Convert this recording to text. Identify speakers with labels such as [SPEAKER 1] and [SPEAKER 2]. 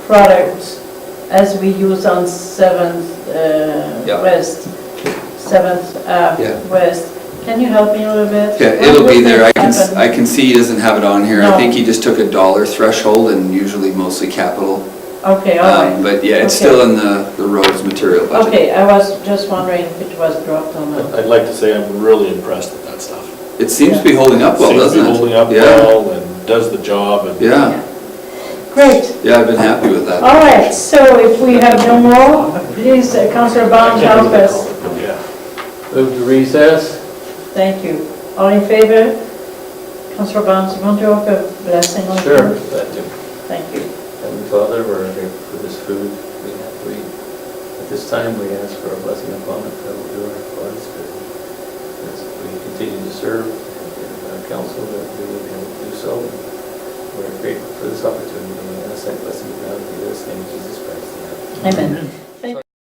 [SPEAKER 1] products as we use on Seventh uh,
[SPEAKER 2] Yeah.
[SPEAKER 1] West, Seventh
[SPEAKER 2] Yeah.
[SPEAKER 1] Ave West. Can you help me a little bit?
[SPEAKER 2] Yeah,
[SPEAKER 1] When
[SPEAKER 2] it'll
[SPEAKER 1] will
[SPEAKER 2] be there, I
[SPEAKER 1] that
[SPEAKER 2] can, s-
[SPEAKER 1] happen?
[SPEAKER 2] I can see he doesn't have it on here, I
[SPEAKER 1] No.
[SPEAKER 2] think he just took a dollar threshold and usually mostly capital.
[SPEAKER 1] Okay, all
[SPEAKER 2] Um,
[SPEAKER 1] right.
[SPEAKER 2] But yeah, it's
[SPEAKER 1] Okay.
[SPEAKER 2] still in the, the roads material budget. Uh,
[SPEAKER 1] Okay, I was just wondering if it was dropped or not.
[SPEAKER 3] I'd like to say I'm really impressed with that stuff.
[SPEAKER 2] It seems to be holding up well, doesn't it?
[SPEAKER 3] Seems to be holding up
[SPEAKER 2] Yeah,
[SPEAKER 3] well and does the job and.
[SPEAKER 2] Yeah,
[SPEAKER 1] Great,
[SPEAKER 2] yeah, I've been happy with that.
[SPEAKER 1] all right, so if we have no more, please, uh, Councillor Barnes, help us.
[SPEAKER 3] Yeah.
[SPEAKER 4] Move to recess?
[SPEAKER 1] Thank you. All in favor? Councillor Barnes, you want to offer a blessing on
[SPEAKER 4] Sure. Uh, That too.
[SPEAKER 1] Thank you.
[SPEAKER 4] Heavenly Father, we're here for this food. We have, we, at this time, we ask for a blessing upon it, that will do our parts, but as we continue to serve and our council, that we will be able to do so. We're grateful for this opportunity, and I ask that blessing upon us, in this name of Jesus Christ.
[SPEAKER 1] Amen.